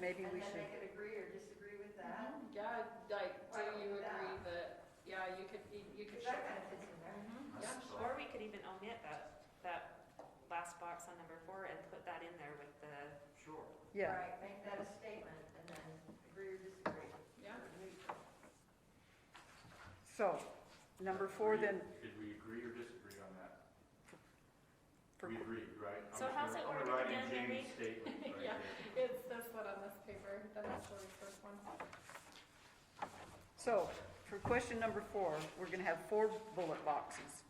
maybe we And then should, Mm-hmm. they could agree or disagree with that, Yeah, like, do Why don't you we do that? agree that, yeah, you could, you you could. because that kind of fits in there. Mm-hmm. Yeah, Or we could even omit that, that last box on number four and put that in there with the, Sure. yeah, Right, make that a statement and then agree or disagree. Yeah. Or neutral. so, number four then, Agree- Did we agree or disagree on that? for- We agreed, right? I'm So just how's gonna- it worded again, I'm gonna write in Mary? Jane's statement right Yeah. there. It's this one on this paper, the natural resource one. so, for question number four, we're gonna have four bullet boxes.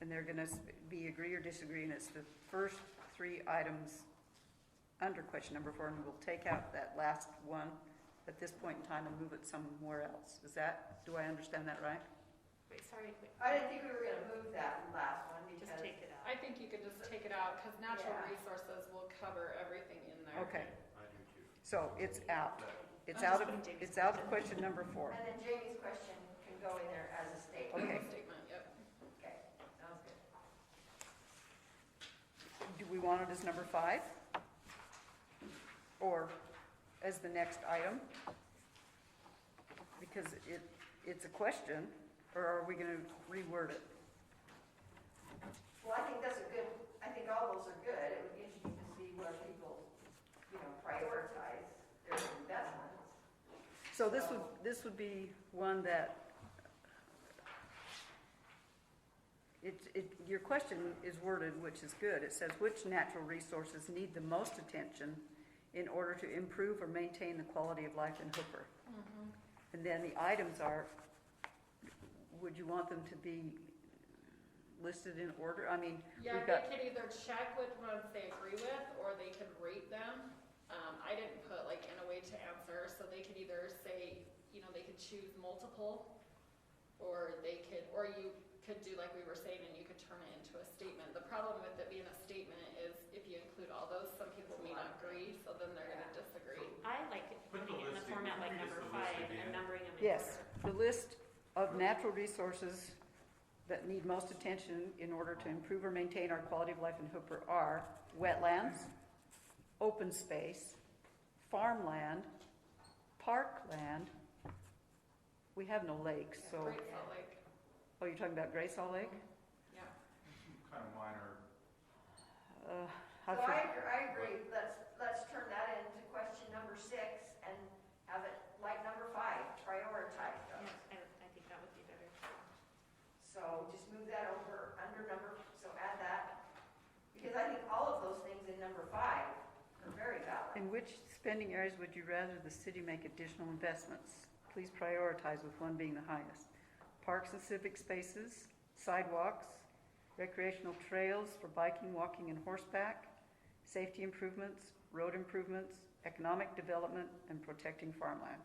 And they're gonna s- be agree or disagree, and it's the first three items under question number four, and we'll take out that last one at this point in time and move it somewhere else. Is that, do I understand that right? wait, sorry, wait, I didn't think we were gonna move that last one because. just take it out. I think you could just take it out, cause natural Yeah. resources will cover everything in there. Okay, I do too. so it's out. That- It's I'm out of, just putting Jamie's it's out of question number four. And then Jamie's question can go in there as a statement. Okay. As a Statement, yep. Okay, sounds good. Do we want it as number five? Or as the next item? Because it, it's a question, or are we gonna reword it? Well, I think that's a good, I think all those are good. It would be interesting to see where people, you know, prioritize their investments. So this would, this would be one that it, it, your question is worded, which is good. It says, which natural resources need the most attention in order to improve or maintain the quality of life in Hooper? Mm-hmm. And then the items are, would you want them to be listed in order? I mean, Yeah, We've got- they could either check which ones they agree with, or they could rate them. Um, I didn't put like in a way to answer, so they could either say, you know, they could choose multiple, or they could, or you could do like we were saying, and you could turn it into a statement. The problem with it being a statement is if you include all those, some people may not agree, so then they're gonna disagree. I like it Put the putting it in the list in. format Can like we just number the list five again? and numbering them in order. yes, the list of natural resources that need most attention in order to improve or maintain our quality of life in Hooper are wetlands, open space, farmland, parkland. We have no lakes, so, Great Salt Lake, oh, you're talking about Gray Salt Lake? yeah. Kind of minor, Uh, So I, I forget- agr- I agree, let's, let's turn that into question number six and have it like number five, prioritize Yeah, those. I, I think that would be better. So just move that over, under number, so add that, because I think all of those things in number five are very valid. In which spending areas would you rather the city make additional investments? Please prioritize with one being the highest. Parks and civic spaces, sidewalks, recreational trails for biking, walking, and horseback, safety improvements, road improvements, economic development, and protecting farmland.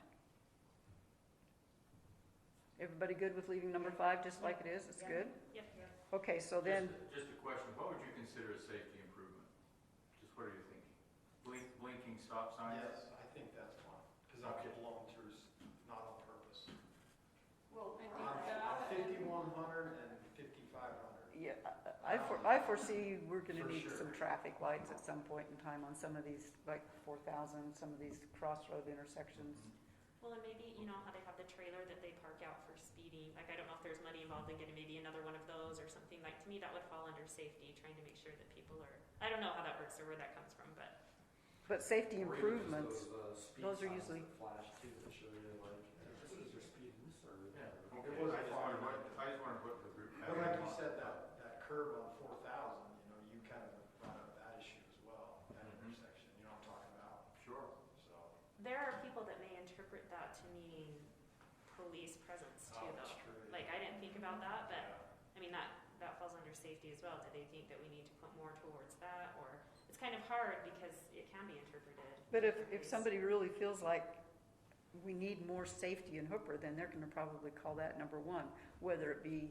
Everybody good with leaving number five just like it is? It's good? Yep. Okay, so then, just, just a question, what would you consider a safety improvement? Just what are you thinking? Blink, blinking stop signs? Yes, I think that's fine, because I Okay. could belong to is not on purpose. Well, I think Uh-huh. On that and- fifty-one hundred and fifty-five hundred. yeah, I- I for- I foresee we're gonna For need sure. some traffic lights at some point in time on some of these, like four thousand, some of these crossroad intersections. Well, and maybe, you know how they have the trailer that they park out for speeding, like, I don't know if there's money involved in getting maybe another one of those or something, like, to me, that would fall under safety, trying to make sure that people are, I don't know how that works or where that comes from, but. Mm-hmm. But safety Or even just improvements, those, uh, speed those are signs usually- that Flash too, that show you like, this is your speed, and this or. Yeah, okay, I It was just fine. wanted, what- I just wanted to put the group. But like you said, that, that curve on four thousand, you know, you kind of brought up that issue as well, that Mhm. intersection, you know what I'm talking about, Sure. so. There are people that may interpret that to mean police presence too, oh, though. that's true. Like, I didn't think about that, but, Yeah. I mean, that, that falls under safety as well. Do they think that we need to put more towards that, or, it's kind of hard because it can be interpreted. but if, different if ways. somebody really feels like we need more safety in Hooper, then they're gonna probably call that number one, whether it be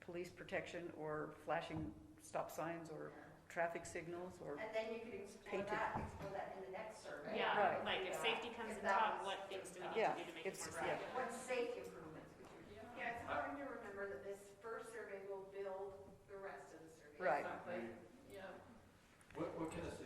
police protection or flashing stop signs or traffic signals or, and then you could explore Painted. that, explore that in the next survey. Yeah, Right. like, if Yeah. safety comes If in that top, was- what things do we need Yeah, to do to make it it's- more yeah. private? What safe improvements would you? Yeah. Yeah, it's important to remember that this first survey will build the rest of the survey. right. Exactly, yeah. What, what kind of